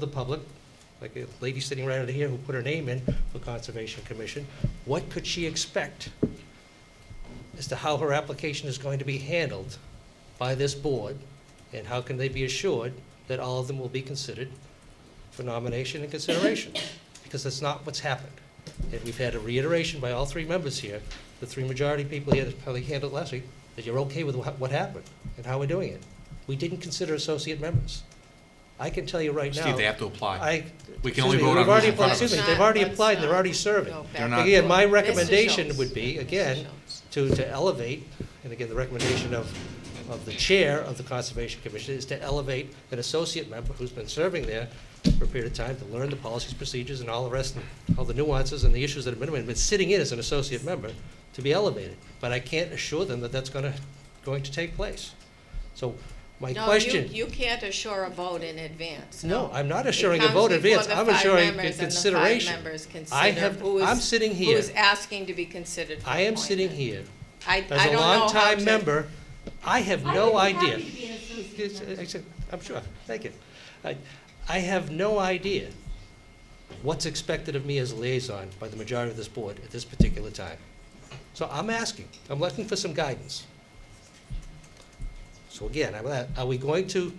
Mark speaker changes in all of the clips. Speaker 1: the public, like a lady sitting right over here who put her name in for Conservation Commission, what could she expect as to how her application is going to be handled by this board? And how can they be assured that all of them will be considered for nomination and consideration? Because that's not what's happened. And we've had a reiteration by all three members here, the three majority people here that probably handled last week, that you're okay with wha- what happened and how we're doing it. We didn't consider associate members. I can tell you right now.
Speaker 2: Steve, they have to apply.
Speaker 1: I.
Speaker 2: We can
Speaker 1: excuse
Speaker 2: only
Speaker 1: me,
Speaker 2: vote
Speaker 1: we've
Speaker 2: on
Speaker 1: already
Speaker 2: who's in front
Speaker 1: applied-
Speaker 2: of us.
Speaker 1: Excuse me, they've already applied, and they're already serving.
Speaker 2: They're not-
Speaker 1: Again, my recommendation would be, again, to, to elevate, and again, the recommendation of, of the chair of the Conservation Commission is to elevate an associate member who's been serving there for a period of time to learn the policies, procedures, and all the rest, and all the nuances and the issues that have been, been sitting in as an associate member to be elevated. But I can't assure them that that's gonna, going to take place. So my question.
Speaker 3: No, you, you can't assure a vote in advance, no.
Speaker 1: No, I'm not assuring a vote in advance, I'm assuring a
Speaker 3: It
Speaker 1: consideration.
Speaker 3: comes before the
Speaker 1: I
Speaker 3: five members, and the five members
Speaker 1: have-
Speaker 3: consider who is.
Speaker 1: I'm sitting
Speaker 3: Who
Speaker 1: here.
Speaker 3: is asking to be considered for
Speaker 1: I am sitting
Speaker 3: appointment.
Speaker 1: here,
Speaker 3: I,
Speaker 1: as
Speaker 3: I
Speaker 1: a
Speaker 3: don't know how
Speaker 1: longtime
Speaker 3: to-
Speaker 1: member, I have no idea. Yes,
Speaker 4: idea.
Speaker 1: I- I said- I'm sure, thank you. I- I have no idea what's expected of me as a liaison by the majority of this board at this particular time. So I'm asking, I'm looking for some guidance. So again, I'm at- are we going to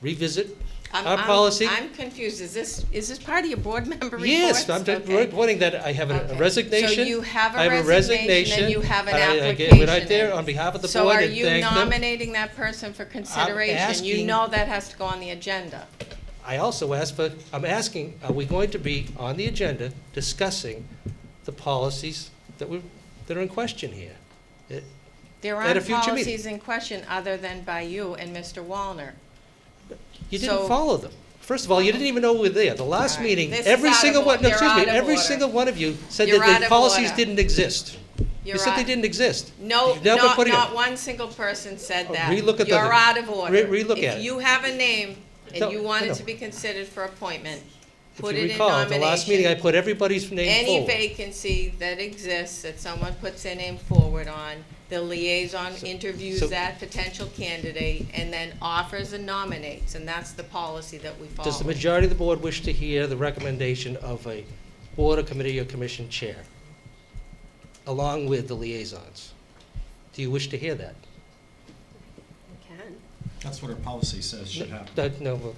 Speaker 1: revisit
Speaker 3: I'm-
Speaker 1: our
Speaker 3: I'm-
Speaker 1: policy?
Speaker 3: I'm confused, is this, is this part of your board member reports?
Speaker 1: Yes, I'm just
Speaker 3: Okay.
Speaker 1: reporting that I have
Speaker 3: Okay.
Speaker 1: a resignation.
Speaker 3: So you have
Speaker 1: I
Speaker 3: a resignation and you have an
Speaker 1: I-
Speaker 3: application.
Speaker 1: I get- went out there
Speaker 3: in.
Speaker 1: on behalf of the
Speaker 3: So
Speaker 1: board
Speaker 3: are
Speaker 1: and
Speaker 3: you
Speaker 1: thanked them.
Speaker 3: nominating that person for consideration? You
Speaker 1: asking-
Speaker 3: know that has to go on the agenda.
Speaker 1: I also asked for, I'm asking, are we going to be on the agenda discussing the policies that we, that are in question here? Uh, It-
Speaker 3: There
Speaker 1: At a
Speaker 3: aren't
Speaker 1: future meeting.
Speaker 3: policies in question other than by you and Mr. Wallner.
Speaker 1: You didn't
Speaker 3: So-
Speaker 1: follow them. First of all, you didn't even know we were there. The last
Speaker 3: All right.
Speaker 1: meeting,
Speaker 3: This is
Speaker 1: every
Speaker 3: out of
Speaker 1: single one,
Speaker 3: order.
Speaker 1: no, excuse me,
Speaker 3: You're out of
Speaker 1: every
Speaker 3: order.
Speaker 1: single one of you said
Speaker 3: You're
Speaker 1: that
Speaker 3: out
Speaker 1: the
Speaker 3: of
Speaker 1: policies
Speaker 3: order.
Speaker 1: didn't exist.
Speaker 3: You're
Speaker 1: You said they
Speaker 3: out-
Speaker 1: didn't exist.
Speaker 3: No,
Speaker 1: You've never
Speaker 3: not,
Speaker 1: put it in.
Speaker 3: not one single person said
Speaker 1: Oh,
Speaker 3: that.
Speaker 1: relook at the-
Speaker 3: You're out of order.
Speaker 1: Re- relook at it.
Speaker 3: If you have a name
Speaker 1: No,
Speaker 3: and you
Speaker 1: I
Speaker 3: want
Speaker 1: know.
Speaker 3: it to be considered for appointment,
Speaker 1: If
Speaker 3: put
Speaker 1: you
Speaker 3: it in
Speaker 1: recall, at the last meeting, I
Speaker 3: nomination.
Speaker 1: put everybody's name
Speaker 3: Any
Speaker 1: forward.
Speaker 3: vacancy that exists that someone puts their name forward on, the liaison
Speaker 1: So- so-
Speaker 3: interviews that potential candidate and then offers and nominates, and that's the policy that we follow.
Speaker 1: Does the majority of the board wish to hear the recommendation of a board or committee or commission chair, along with the liaisons? Do you wish to hear that?
Speaker 5: That's what our policy says should happen.
Speaker 1: That- No, well,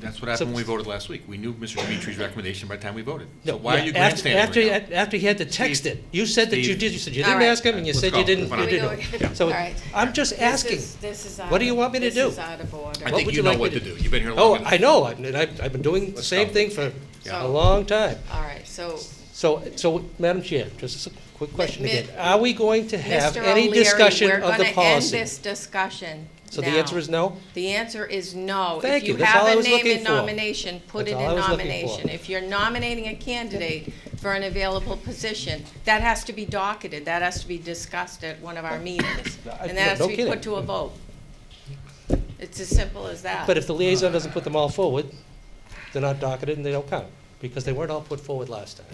Speaker 2: That's what happened when we voted last week. We knew Mr. Dimitri's recommendation by the time we voted.
Speaker 1: no.
Speaker 2: So why are you
Speaker 1: yeah, after-
Speaker 2: grandstanding
Speaker 1: after-
Speaker 2: right now?
Speaker 1: After he had to text
Speaker 2: Steve,
Speaker 1: it, you said that you
Speaker 2: Steve.
Speaker 1: did, you said you
Speaker 3: All
Speaker 1: didn't
Speaker 3: right.
Speaker 1: ask him, and you
Speaker 2: Let's
Speaker 1: said
Speaker 2: go.
Speaker 1: you didn't,
Speaker 2: Come
Speaker 1: you
Speaker 2: on.
Speaker 3: Here we
Speaker 1: didn't.
Speaker 3: go again.
Speaker 1: So
Speaker 3: All right.
Speaker 1: I'm just asking.
Speaker 3: This is, this is out
Speaker 1: What do you
Speaker 3: of-
Speaker 1: want me to
Speaker 3: This
Speaker 1: do?
Speaker 3: is out of order.
Speaker 2: I
Speaker 1: What
Speaker 2: think
Speaker 1: would you
Speaker 2: you know
Speaker 1: like me
Speaker 2: what
Speaker 1: to
Speaker 2: to do. You've been here
Speaker 1: Oh,
Speaker 2: long
Speaker 1: I
Speaker 2: enough.
Speaker 1: know, I've, and I've I've been doing the
Speaker 2: Let's
Speaker 1: same
Speaker 2: go.
Speaker 1: thing for
Speaker 2: Yeah.
Speaker 1: a long time.
Speaker 3: All right, so
Speaker 1: So, so, Madam Chair, just a quick question
Speaker 3: Mi-
Speaker 1: again. Are we going to have
Speaker 3: Mr.
Speaker 1: any
Speaker 3: O'Leary,
Speaker 1: discussion
Speaker 3: we're
Speaker 1: of the
Speaker 3: gonna
Speaker 1: policy?
Speaker 3: end this discussion
Speaker 1: So the answer
Speaker 3: now.
Speaker 1: is no?
Speaker 3: The answer is no.
Speaker 1: Thank
Speaker 3: If
Speaker 1: you.
Speaker 3: you
Speaker 1: That's all I
Speaker 3: have a
Speaker 1: was
Speaker 3: name
Speaker 1: looking
Speaker 3: in
Speaker 1: for.
Speaker 3: nomination, put
Speaker 1: That's
Speaker 3: it
Speaker 1: all I
Speaker 3: in
Speaker 1: was looking
Speaker 3: nomination.
Speaker 1: for.
Speaker 3: If you're nominating a candidate for an available position, that has to be docketed, that has to be discussed at one of our meetings,
Speaker 1: I-
Speaker 3: and that has
Speaker 1: no
Speaker 3: to be
Speaker 1: kidding.
Speaker 3: put to a vote. It's as simple as that.
Speaker 1: But if the liaison doesn't put them all forward, they're not docketed and they don't count, because they weren't all put forward last time.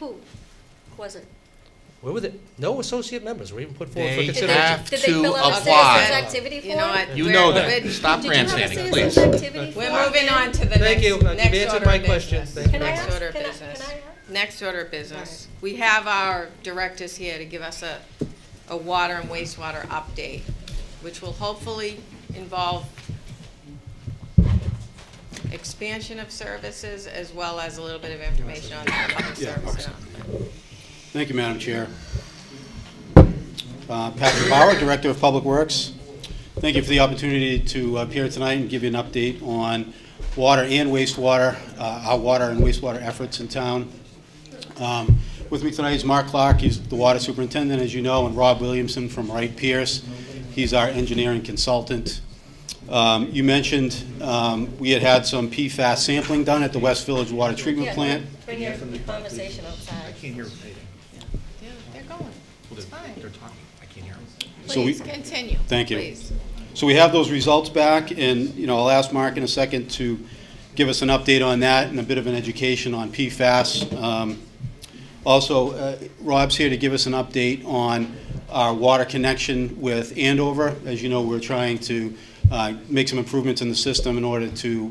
Speaker 4: Who wasn't?
Speaker 1: Where were the, no associate members were even put forward for
Speaker 2: They
Speaker 4: Did they-
Speaker 1: consideration.
Speaker 2: have
Speaker 4: did they fill
Speaker 2: to
Speaker 4: out a
Speaker 2: apply.
Speaker 4: citizen's activity
Speaker 3: You know
Speaker 4: form?
Speaker 3: what?
Speaker 2: You
Speaker 3: We're-
Speaker 2: know that.
Speaker 3: we're-
Speaker 2: Stop
Speaker 4: Did you have a
Speaker 2: grandstanding,
Speaker 4: citizens'
Speaker 2: please.
Speaker 4: activity form?
Speaker 3: We're moving on to the
Speaker 1: Thank
Speaker 3: next, next
Speaker 1: you.
Speaker 3: order of
Speaker 1: You've
Speaker 3: business.
Speaker 1: answered my question. Thank you.
Speaker 4: Can I
Speaker 3: Next
Speaker 4: ask-
Speaker 3: order of
Speaker 4: can I-
Speaker 3: business.
Speaker 4: can I ask?
Speaker 3: Next order of business. We have our directors here to give us a, a water and wastewater update, which will hopefully involve expansion of services as well as a little bit of information on the public service announcement.
Speaker 6: Thank you, Madam Chair. Uh, Patrick Bauer, Director of Public Works. Thank you for the opportunity to appear tonight and give you an update on water and wastewater, uh, our water and wastewater efforts in town. Um, With me tonight is Mark Clark, he's the water superintendent, as you know, and Rob Williamson from Wright Pierce. He's our engineering consultant. Um, You mentioned um, we had had some PFAS sampling done at the West Village Water Treatment
Speaker 4: Yeah,
Speaker 6: Plant.
Speaker 4: Bring your conversation outside.
Speaker 2: can't hear them.
Speaker 3: Yeah, they're going. It's fine.
Speaker 2: They're talking. I can't hear them.
Speaker 6: So we-
Speaker 3: Please continue.
Speaker 6: Thank you.
Speaker 3: Please.
Speaker 6: So we have those results back, and, you know, I'll ask Mark in a second to give us an update on that and a bit of an education on PFAS. Um, Also, uh, Rob's here to give us an update on our water connection with Andover. As you know, we're trying to uh, make some improvements in the system in order to